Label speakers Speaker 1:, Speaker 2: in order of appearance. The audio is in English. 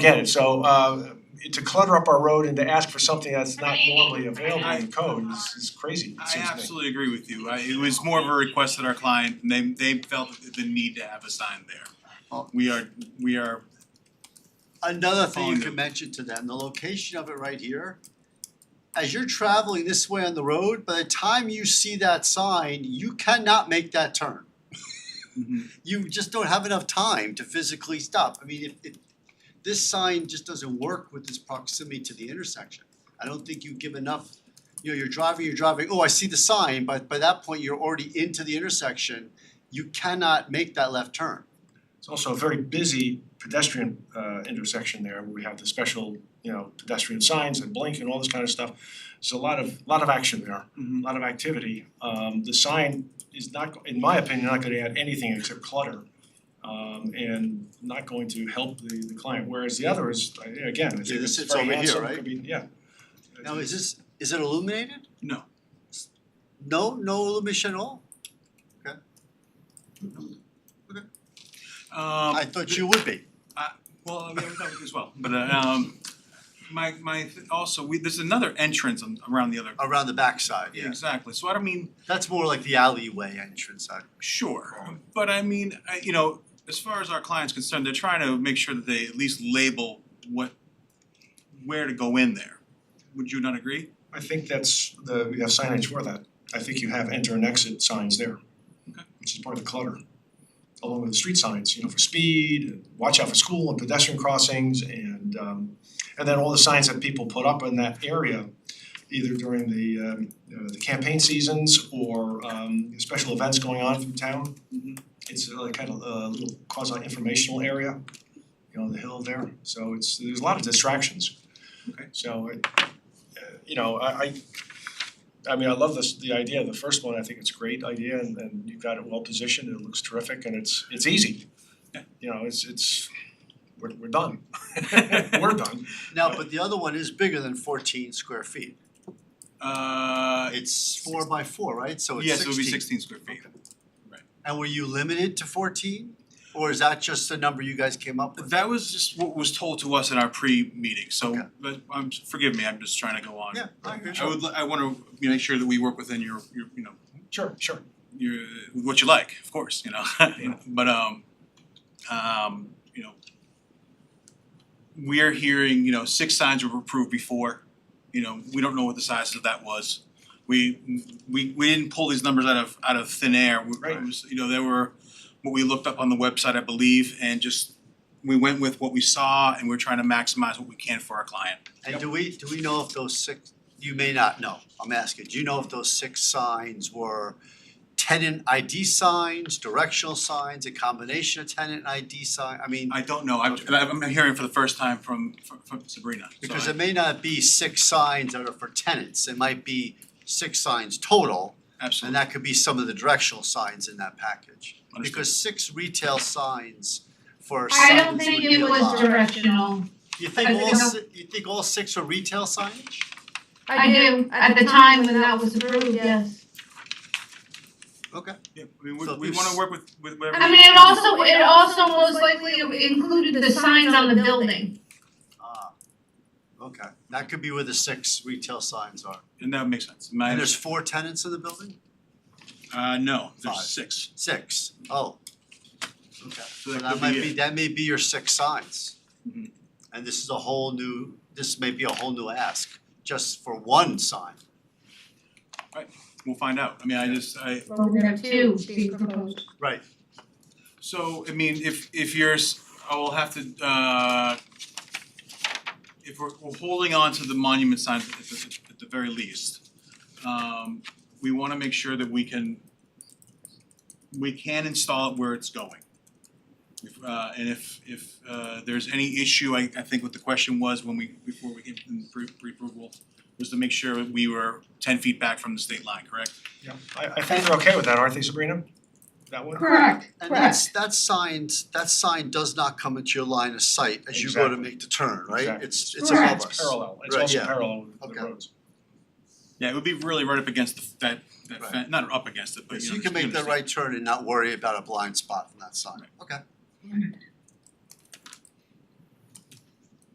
Speaker 1: get it, so uh to clutter up our road and to ask for something that's not normally available in code is is crazy, it
Speaker 2: I
Speaker 1: seems to me.
Speaker 2: absolutely agree with you, I it was more of a request that our client, they they felt the need to have a sign
Speaker 1: Oh.
Speaker 2: there. We are, we are,
Speaker 3: Another thing you
Speaker 2: Fond
Speaker 3: can
Speaker 2: of.
Speaker 3: mention to them, the location of it right here. As you're traveling this way on the road, by the time you see that sign, you cannot make that turn.
Speaker 2: mm-hmm,
Speaker 3: You just don't have enough time to physically stop. I mean, if if this sign just doesn't work with this proximity to the intersection. I don't think you give enough, you know, you're driving, you're driving, oh, I see the sign, but by that point, you're already into the intersection. You cannot make that left turn.
Speaker 1: It's also a very busy pedestrian uh intersection there where we have the special, you know, pedestrian signs and blink and all this kind of stuff. So a lot of, lot of action there,
Speaker 2: mm-hmm.
Speaker 1: a lot of activity. Um the sign is not, go- in my opinion, not gonna add anything except clutter. Um and not going to help the the client, whereas the other is, I- again, I
Speaker 3: Yeah,
Speaker 1: think
Speaker 3: this
Speaker 1: it's
Speaker 3: sits
Speaker 1: very
Speaker 3: over here,
Speaker 1: handsome,
Speaker 3: right?
Speaker 1: could be, yeah.
Speaker 3: Now, is this, is it illuminated?
Speaker 2: no,
Speaker 3: No, no illumination at all?
Speaker 2: um. I
Speaker 3: would be.
Speaker 2: Well, yeah, we thought as well, but uh, um my my also, we, there's another entrance on around the other.
Speaker 3: Around the backside, yeah.
Speaker 2: Exactly, so I don't mean,
Speaker 3: That's more like the alleyway entrance side.
Speaker 2: Sure, but I mean, I, you know, as far as our client's concerned, they're trying to make sure that they at least label what, where to go in there. Would you not agree?
Speaker 1: I think that's the, we have signage for that. I think you have enter and exit signs there.
Speaker 2: Okay.
Speaker 1: Which is part of the clutter. Along with the street signs, you know, for speed, and watch out for school and pedestrian crossings and um and then all the signs that people put up in that area either during the um uh, the campaign seasons or um special events going on through town.
Speaker 2: Mm-hmm.
Speaker 1: It's uh, like kind of a little quasi informational area, you know, the hill there. So it's, there's a lot of distractions.
Speaker 2: Okay.
Speaker 1: So it, uh, you know, I I I mean, I love this, the idea of the first one, I think it's a great idea and and you've got it well positioned, it looks terrific and it's it's easy.
Speaker 2: Yeah.
Speaker 1: You know, it's it's, we're we're done, we're done.
Speaker 3: Now, but the other one is bigger than fourteen square feet.
Speaker 2: Uh,
Speaker 3: It's four by four, right? So it's
Speaker 2: yes, it
Speaker 3: sixteen.
Speaker 2: would be sixteen square feet.
Speaker 3: And were you limited to fourteen? Or is that just the number you guys came up with?
Speaker 2: That was just what was told to us in our pre-meeting,
Speaker 3: Okay.
Speaker 2: so, but, um, forgive me, I'm just trying to go on.
Speaker 3: Yeah, I agree.
Speaker 2: I would, li- I wanna make sure that we work within your, your, you know,
Speaker 1: Sure, sure.
Speaker 2: you what you like, of course, you know. You know, but um um, you know we're hearing, you know, six signs were approved before. You know, we don't know what the size of that was. We we we didn't pull these numbers out of out of thin air. We-
Speaker 1: Right.
Speaker 2: it was- you know, there were what we looked up on the website, I believe, and just we went with what we saw and we're trying to maximize what we can for our client.
Speaker 3: And do we, do we know if those six, you may not know, I'm asking, do you know if those six signs were tenant ID signs, directional signs, a combination of tenant ID sign, I mean,
Speaker 2: I don't know. I'm I'm hearing for the first time from from from Sabrina. so
Speaker 3: Because
Speaker 2: I-
Speaker 3: it may not be six signs that are for tenants, it might be six signs total, and
Speaker 2: absolutely
Speaker 3: that could be some of the directional signs in that package.
Speaker 2: understood.
Speaker 3: Because six retail signs for
Speaker 4: I
Speaker 3: signs
Speaker 4: don't
Speaker 3: would
Speaker 4: think
Speaker 3: be
Speaker 4: it
Speaker 3: a
Speaker 4: was
Speaker 3: lot.
Speaker 4: directional.
Speaker 3: You think
Speaker 4: I
Speaker 3: all
Speaker 4: don't-
Speaker 3: si- you think all six are retail signage?
Speaker 4: I do, at the time when that was approved, yes.
Speaker 3: Okay.
Speaker 2: Yeah, I mean, we
Speaker 3: So
Speaker 2: we
Speaker 3: if
Speaker 2: wanna
Speaker 3: s-
Speaker 2: work with with whatever.
Speaker 4: I mean, it also, it also most likely included the signs on the building.
Speaker 3: Ah, okay, that could be where the six retail signs are.
Speaker 2: And that makes sense. My,
Speaker 3: And there's four tenants in the building?
Speaker 2: uh, no,
Speaker 3: Five.
Speaker 2: there's six.
Speaker 3: Six. Oh. Okay.
Speaker 2: So
Speaker 3: So
Speaker 2: that
Speaker 3: that
Speaker 2: could
Speaker 3: might
Speaker 2: be
Speaker 3: be,
Speaker 2: it.
Speaker 3: that may be your six signs.
Speaker 1: Mm-hmm.
Speaker 2: Mhm.
Speaker 3: And this is a whole new, this may be a whole new ask, just for one sign.
Speaker 2: We'll find out. I mean, I just, I,
Speaker 4: But we're gonna have two being proposed.
Speaker 3: Right.
Speaker 2: so, I mean, if if you're, s- I will have to, uh, if we're we're holding on to the monument sign at the at the very least, um, we wanna make sure that we can we can install it where it's going. If uh and if if uh there's any issue, I I think what the question was when we before we gave them pre approval was to make sure we were ten feet back from the state line, correct?
Speaker 1: Yeah, I I think they're okay with that, aren't they Sabrina? That one?
Speaker 4: Correct,
Speaker 3: And that's, that sign, that sign does not come into your line of sight as you go to
Speaker 1: Exactly.
Speaker 3: make the turn, right?
Speaker 1: Exactly.
Speaker 3: It's it's
Speaker 4: Correct.
Speaker 3: above us.
Speaker 1: It's parallel, it's
Speaker 3: Right,
Speaker 1: also
Speaker 3: yeah.
Speaker 1: parallel with
Speaker 3: Okay.
Speaker 1: the roads.
Speaker 2: Yeah, it would be really right up against the f- that that
Speaker 3: Right.
Speaker 2: fence, not up against it, but you
Speaker 3: So
Speaker 2: know,
Speaker 3: you can make that
Speaker 2: understand.
Speaker 3: right turn and not worry about a blind spot from that sign. Okay.